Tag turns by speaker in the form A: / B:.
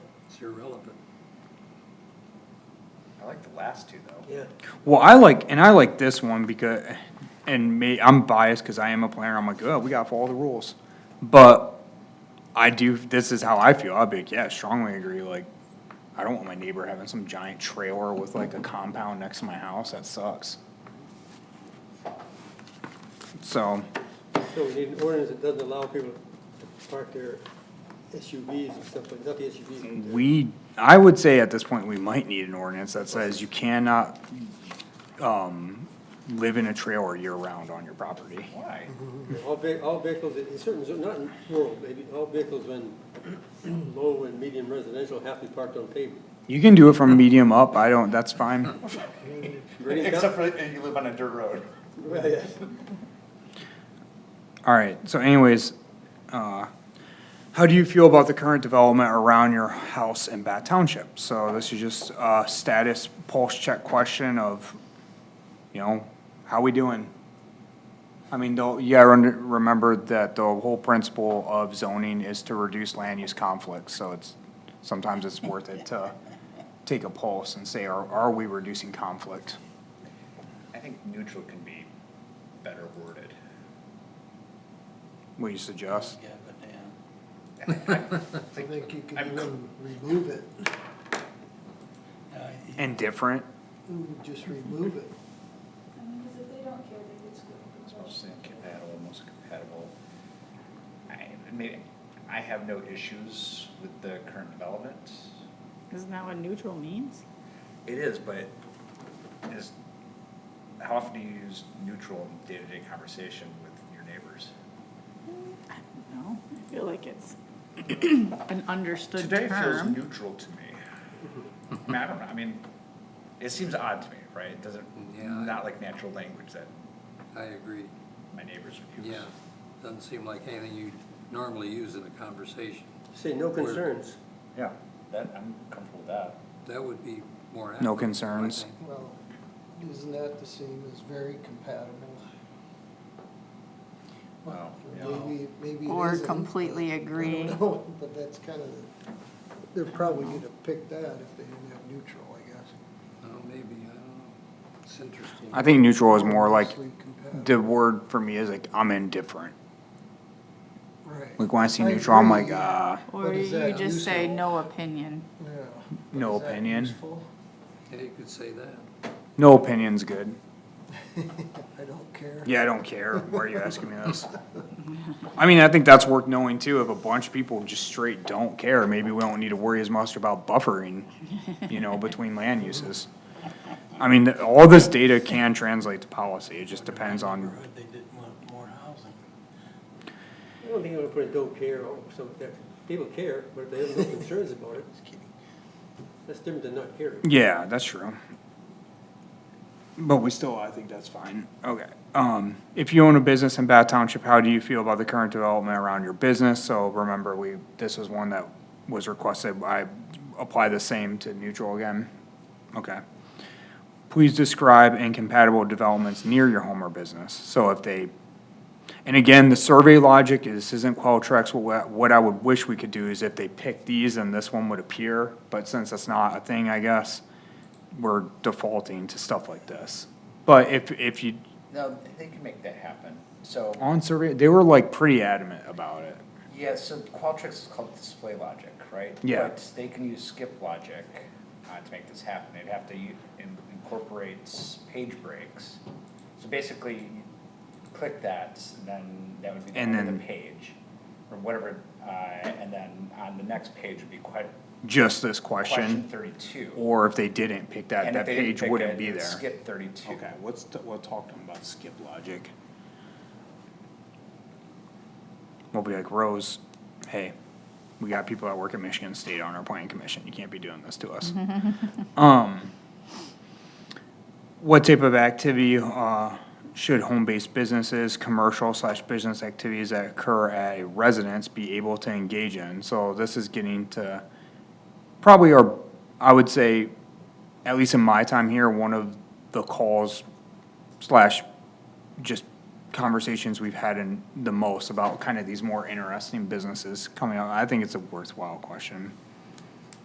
A: irrelevant.
B: I like the last two though.
A: Yeah.
C: Well, I like, and I like this one because, and me, I'm biased because I am a planner. I'm like, oh, we gotta follow the rules. But I do, this is how I feel. I'll be like, yeah, strongly agree. Like, I don't want my neighbor having some giant trailer with like a compound next to my house. That sucks. So,
A: So we need an ordinance that doesn't allow people to park their SUVs and stuff like, not the SUVs. but
C: we, I would say at this point, we might need an ordinance that says you cannot, um, live in a trailer year round on your property.
B: Why?
A: the- All ve- all vehicles, in certain, zo- not in rural, maybe, all vehicles in low and medium residential have to be parked on pavement.
C: You can do it from medium up, I don't, that's fine.
A: Ready to count?
B: Except for that you live on a dirt road.
A: Well, yeah.
C: Alright, so anyways, uh, how do you feel about the current development around your house in Bat Township? So this is just a status pulse check question of, you know, how we doing? I mean, though, you gotta run- remember that the whole principle of zoning is to reduce land use conflicts, so it's, sometimes it's worth it to take a pulse and say, are, are we reducing conflict?
B: I think neutral can be better worded.
C: What do you suggest?
D: Yeah, but uh, yeah.
E: I think you can
B: I'm-
E: even remove it,
D: No, you-
C: Indifferent?
E: just remove it.
F: I mean, because if they don't care, they could screw up.
B: It's mostly compatible, most compatible. I, maybe, I have no issues with the current development.
G: Isn't that what neutral means?
B: It is, but is, how often do you use neutral in day-to-day conversation with your neighbors?
G: I don't know. I feel like it's an understood
B: Today feels
G: term.
B: neutral to me. I mean, I don't know, I mean, it seems odd to me, right? It doesn't,
E: Yeah, I-
B: not like natural language that
E: I agree,
B: my neighbors would use.
E: yeah, doesn't seem like anything you normally use in a conversation,
A: Say no concerns.
B: Yeah, that, I'm comfortable with that.
E: that would be more accurate.
C: No
E: I
C: concerns.
E: think.
H: Well, isn't that the same as very compatible?
B: Well, yeah.
H: Maybe, maybe it
G: Or
H: isn't.
G: completely
H: I
G: agree.
H: don't know, but that's kind of, they're probably gonna pick that if they didn't have neutral, I guess.
E: Oh, maybe, I don't know, it's interesting.
C: I think neutral is more like,
H: Mostly compatible.
C: the word for me is like, I'm indifferent.
H: Right.
C: Like, when I see
H: I
C: neutral, I'm
H: agree.
C: like, uh,
G: Or
H: What is
G: you
H: that,
G: just say
H: neutral?
G: no opinion.
H: Yeah.
C: No
H: Is that
C: opinion.
H: useful?
E: Yeah, you could say that.
C: no opinion's good.
H: I don't care.
C: Yeah, I don't care. Why are you asking me this? I mean, I think that's worth knowing too. If a bunch of people just straight don't care, maybe we don't need to worry as much about buffering, you know, between land uses. I mean, all this data can translate to policy. It just depends on,
D: Neighborhood, They didn't want more housing.
A: I don't think I'm gonna put a don't care or something like that. People care, but if they have no concerns about it. That's different than not caring.
C: yeah, that's true. But we still, I think that's fine. Okay. Um, if you own a business in Bath Township, how do you feel about the current development around your business? So remember, we, this was one that was requested. I apply the same to neutral again. Okay. Please describe incompatible developments near your home or business. So if they, and again, the survey logic is, this isn't Qualtrics. What, what I would wish we could do is if they pick these and this one would appear, but since that's not a thing, I guess, we're defaulting to stuff like this. But if, if you,
B: No, they can make that happen. So,
C: on survey, they were like pretty adamant about it.
B: yeah, so Qualtrics is called display logic, right?
C: Yeah.
B: But they can use skip logic uh, to make this happen. They'd have to u- in- incorporate s- page breaks. So basically, you click that, and then that would be the
C: And
B: end of the
C: then-
B: page, or whatever, uh, and then on the next page would be que-
C: Just this
B: question
C: question,
B: thirty-two.
C: or if they didn't pick that,
B: And if
C: that
B: they didn't
C: page
B: pick
C: wouldn't
B: it,
C: be
B: you'd
C: there.
B: Skip thirty-two.
C: Okay, what's, t- we'll talk to them about skip logic. We'll be like, Rose, hey, we got people that work at Michigan State on our planning commission, you can't be doing this to us. Um, what type of activity, uh, should home-based businesses, commercial slash business activities that occur at a residence be able to engage in? So this is getting to probably are, I would say, at least in my time here, one of the calls slash just conversations we've had in the most about kind of these more interesting businesses coming out. I think it's a worthwhile question.